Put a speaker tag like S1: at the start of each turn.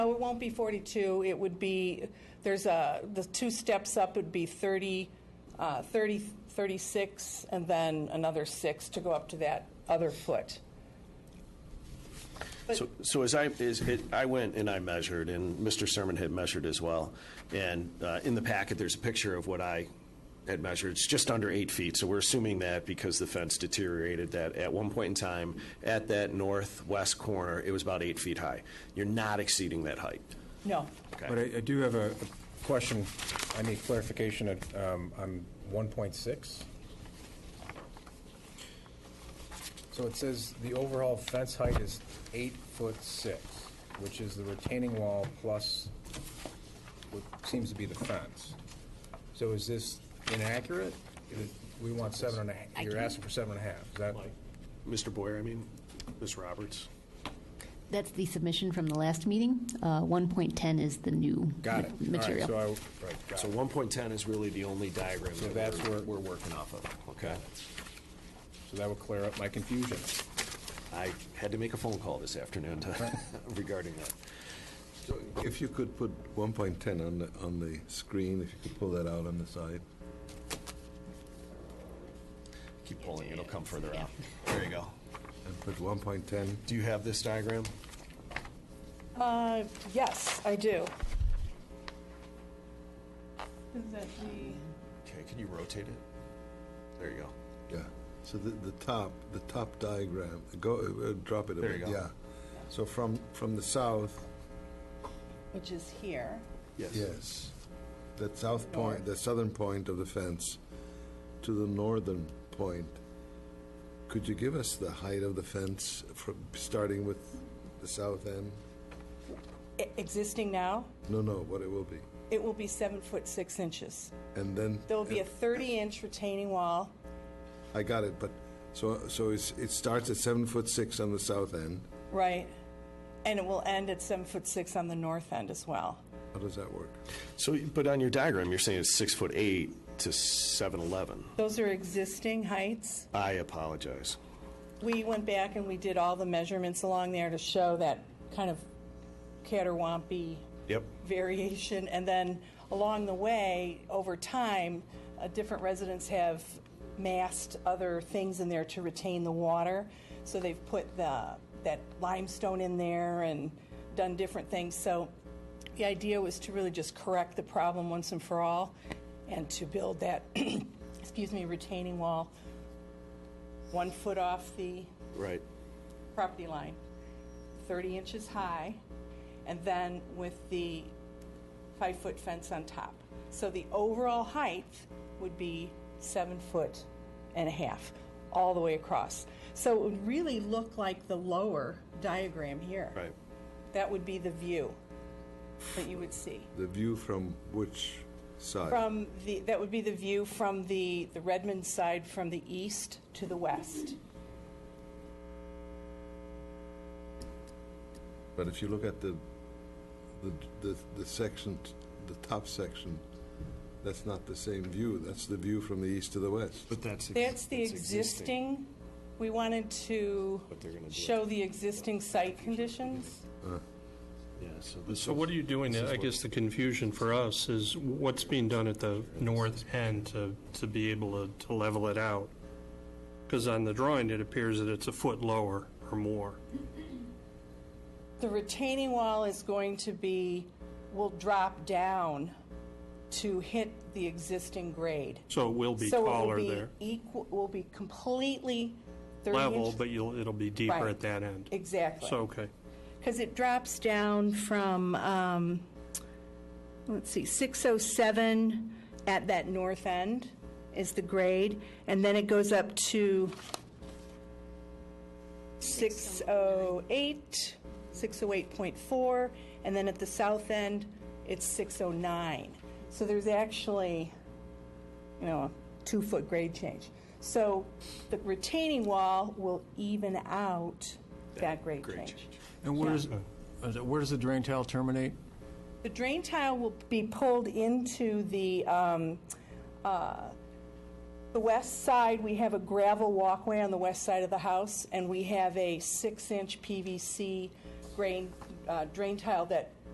S1: No, it won't be 42. It would be, there's a, the two steps up would be 30, uh, 30, 36, and then another six to go up to that other foot.
S2: So, so as I, as it, I went and I measured, and Mr. Sermon had measured as well. And uh, in the packet, there's a picture of what I had measured. It's just under eight feet, so we're assuming that because the fence deteriorated, that at one point in time, at that northwest corner, it was about eight feet high. You're not exceeding that height.
S1: No.
S2: Okay.
S3: But I I do have a a question, I need clarification at, um, on 1.6. So it says the overall fence height is eight foot six, which is the retaining wall plus what seems to be the fence. So is this inaccurate? Is it- We want seven and a half, you're asking for seven and a half, is that?
S2: Mr. Boyer, I mean, Ms. Roberts.
S4: That's the submission from the last meeting. Uh, 1.10 is the new
S3: Got it.
S4: ma-
S3: All right,
S4: material.
S3: so I, right, got
S2: So
S3: it.
S2: 1.10 is really the only diagram
S3: So
S2: that
S3: that's
S2: we're,
S3: where-
S2: we're working off of. Okay.
S3: So that would clear up my confusion.
S2: I had to make a phone call this afternoon to, regarding that.
S5: So If you could put 1.10 on the, on the screen, if you could pull that out on the side.
S2: Keep pulling, it'll come further out. There you go.
S5: And put 1.10,
S2: Do you have this diagram?
S1: Uh, yes, I do. Is that the?
S2: Okay, can you rotate it? There you go.
S5: yeah. So the, the top, the top diagram, go, uh, drop it a
S2: There you
S5: bit,
S2: go.
S5: yeah. So from, from the south,
S1: Which is here.
S5: yes, that south point,
S1: North.
S5: the southern point of the fence to the northern point. Could you give us the height of the fence from, starting with the south end?
S1: E- Existing now,
S5: No, no, what it will be.
S1: it will be seven foot six inches.
S5: And then.
S1: There will be a 30 inch retaining wall.
S5: I got it, but, so, so it's, it starts at seven foot six on the south end.
S1: Right. And it will end at seven foot six on the north end as well.
S5: How does that work?
S2: So, but on your diagram, you're saying it's six foot eight to seven eleven.
S1: Those are existing heights.
S2: I apologize.
S1: We went back and we did all the measurements along there to show that kind of caterwampy
S2: Yep.
S1: variation. And then along the way, over time, uh, different residents have massed other things in there to retain the water. So they've put the that limestone in there and done different things. So the idea was to really just correct the problem once and for all, and to build that, excuse me, retaining wall one foot off the
S2: Right.
S1: property line, 30 inches high, and then with the five-foot fence on top. So the overall height would be seven foot and a half, all the way across. So it would really look like the lower diagram here.
S2: Right.
S1: That would be the view that you would see.
S5: The view from which side?
S1: From the, that would be the view from the, the Redmond side from the east to the west.
S5: But if you look at the, the, the, the section, t- the top section, that's not the same view. That's the view from the east to the west.
S2: But that's
S1: That's the existing, we wanted to
S2: they're gonna do
S1: show the existing site conditions.
S2: Yeah. So this.
S6: So what are you doing, I guess the confusion for us is what's being done at the north end to, to be able to, to level it out? Because on the drawing, it appears that it's a foot lower or more.
S1: The retaining wall is going to be, will drop down to hit the existing grade.
S6: So it will be
S1: So
S6: taller there.
S1: it will be equal, will be completely 30 inch.
S6: Level, but you'll, it'll be deeper
S1: Right.
S6: at that end.
S1: Exactly.
S6: So, okay.
S1: Because it drops down from, um, let's see, 607 at that north end is the grade, and then it goes up to 608, 608.4, and then at the south end, it's 609. So there's actually, you know, a two-foot grade change. So the retaining wall will even out that grade
S2: grade
S1: change.
S2: change.
S7: And where does, is it- where does the drain tile terminate?
S1: The drain tile will be pulled into the, um, uh, the west side, we have a gravel walkway on the west side of the house, and we have a six-inch PVC grain, uh, drain tile that